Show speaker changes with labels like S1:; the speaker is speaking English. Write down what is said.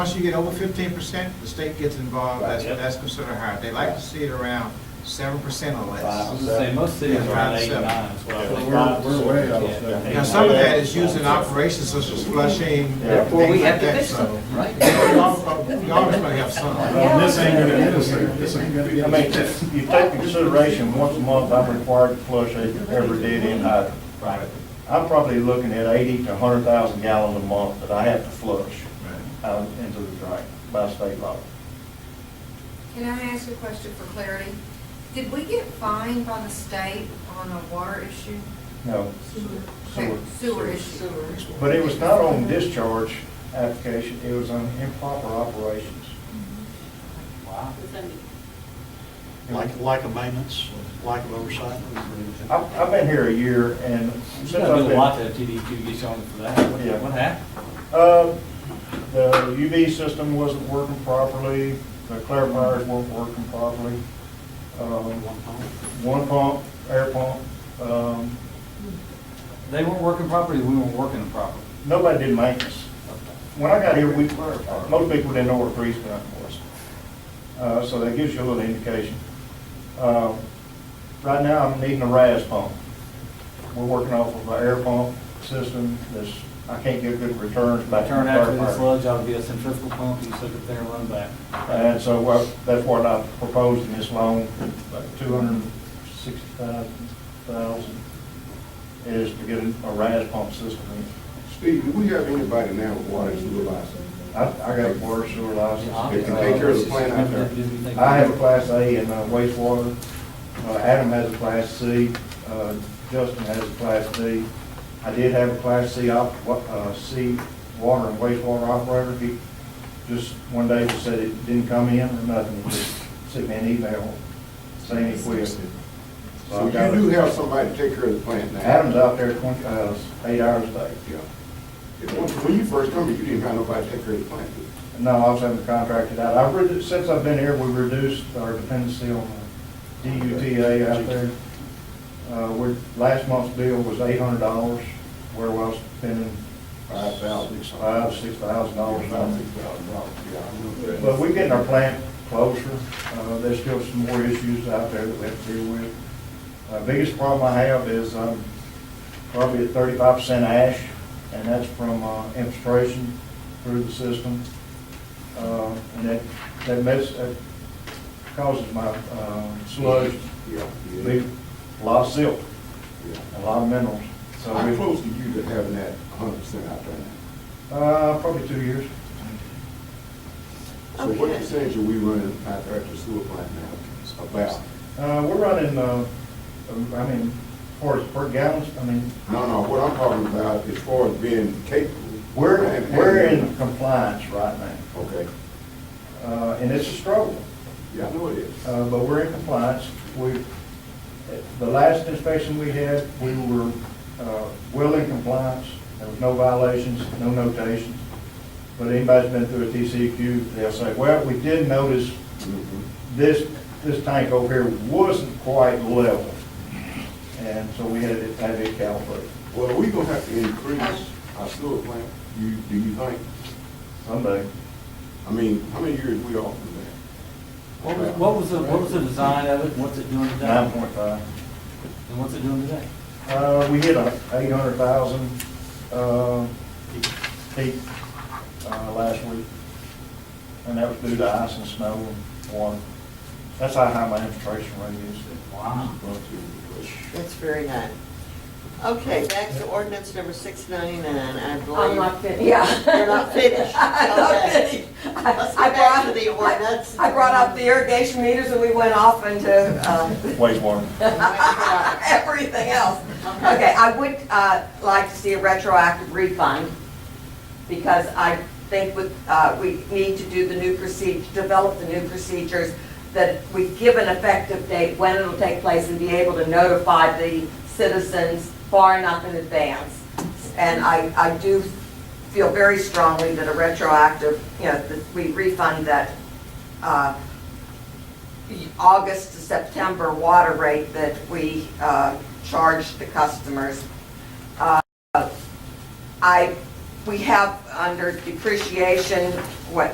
S1: Once you get over fifteen percent, the state gets involved, that's,
S2: Right.
S1: that's considered higher. They like to see it around seven percent or
S2: Five.
S1: less.
S3: I was gonna say, most cities are around eight,
S1: Seven.
S3: nine, is what I
S2: Yeah.
S3: think.
S2: We're- we're way
S3: Yeah.
S2: off there.
S1: Now, some of that is used in operations such as flushing,
S2: Yeah.
S1: things
S4: Well, we have
S1: like
S4: to
S1: that,
S4: fix
S1: so.
S4: something, right?
S1: We always gonna have some.
S2: Well, this ain't gonna get us there, this ain't gonna
S5: I
S2: get
S5: mean,
S2: us
S5: if
S2: there.
S5: you take consideration, once a month, I'm required to flush a- every dead-end hydrant.
S1: Right.
S5: I'm probably looking at eighty to hundred thousand gallons a month that I have to flush out into the drain by state law.
S6: Can I ask a question for clarity? Did we get fined by the state on a water issue?
S5: No,
S6: Okay, Sewer issue.
S5: but it was not on discharge application, it was on improper operations.
S3: Wow.
S7: Like, like a maintenance, like of oversight.
S5: I've, I've been here a year and
S3: You
S5: since
S3: gotta
S5: I've
S3: do a lot
S5: been,
S3: to TD to get you on for that.
S5: Yeah.
S3: What- What happened?
S5: uh, the UV system wasn't working properly, the clarifiers weren't working properly. Um, one pump, air pump, um,
S3: They weren't working properly, we weren't working them properly.
S5: nobody did maintenance. When I got here, we, most people didn't know what a grease gun was. Uh, so that gives you a little indication. Uh, right now, I'm needing a RAS pump. We're working off of an air pump system that's, I can't get good returns back. from
S3: Turn after
S5: fire
S3: the
S5: fire.
S3: sludge, ought to be a centrifugal pump, you sit up there and run back.
S5: And so uh, that's what I proposed in this loan, two hundred and sixty-five thousand, is to get a RAS pump system in.
S8: Steve, do we have anybody now with water and sewer license?
S5: I, I got a water sewer license.
S8: They can take care of the plant out there.
S5: I have a class A in uh, wastewater. Uh, Adam has a class C. Uh, Justin has a class D. I did have a class C op, wa- uh, C water and wastewater operator. He just one day just said it didn't come in or nothing. He just sent me an email saying he quit.
S8: So you do have somebody to take care of the plant now?
S5: Adam's out there twenty, uh, eight hours a day.
S8: Yeah. If- When when you first come, here, you didn't have nobody to take care of the plant. did you?
S5: No, I was having to contract it out. I've reduced, since I've been here, we reduced our dependency on the DUTA out there. Uh, we, last month's bill was eight hundred dollars, where I was spending
S8: Five thousand.
S5: five, six thousand dollars
S8: Five,
S5: on
S8: six thousand dollars, yeah. I remember
S5: it.
S8: that.
S5: But we're getting our plant closer. Uh, there's still some more issues out there that we have to deal with. Uh, biggest problem I have is I'm probably at thirty-five percent ash, and that's from, uh, infiltration through the system. Uh, and that, that mess, that causes my, uh, sludge,
S8: Yeah, yeah,
S5: big, a lot of silt,
S8: yeah.
S5: a lot of minerals. So
S8: How
S5: we,
S8: close are you to having that hundred percent out there now?
S5: uh, probably two years.
S8: So what percentage are we running out there at the sewer plant now? About?
S5: Uh, we're running, uh, I mean, for, per gallons, I mean,
S8: No, no, what I'm talking about as far as being capable.
S5: we're,
S8: And-
S5: we're
S8: and-
S5: in compliance right now.
S8: Okay,
S5: Uh, and it's a struggle.
S8: yeah, I know it is.
S5: uh, but we're in compliance. We, the last inspection we had, we were uh, well in compliance. There was no violations, no notations. But anybody's been through a TCEQ, they'll say, well, we did notice
S8: Mhm.
S5: this, this tank over here wasn't quite level. And so we had to have it calibrated.
S8: Well, we gonna have to increase our sewer plant, you, do you think?
S5: Someday,
S8: I mean, how many years we off from
S3: What
S8: that?
S3: was, what was the, what was the design of it, and what's it doing today?
S5: nine point five.
S3: And what's it doing today?
S5: Uh, we hit a eight hundred thousand, uh, peak, uh, last week. And that was due to ice and snow and water. That's how high my infiltration rate is.
S3: Wow.
S8: About two years.
S9: That's very high. Okay, back to ordinance number six ninety-nine, I believe.
S4: I'm not finished, yeah.
S9: You're not finished.
S4: I'm not
S9: Okay.
S4: finished.
S9: Let's
S4: I
S9: go back
S4: brought-
S9: to the ordinance.
S4: I brought up the irrigation meters and we went off into, um,
S5: Wastewater.
S9: Oh,
S4: everything else. Okay, I would, uh, like to see a retroactive refund because I think with, uh, we need to do the new procedure, develop the new procedures that we give an effective date when it'll take place and be able to notify the citizens far enough in advance. And I, I do feel very strongly that a retroactive, you know, that we refund that, uh, August to September water rate that we uh, charge the customers. Uh, I, we have under depreciation, what,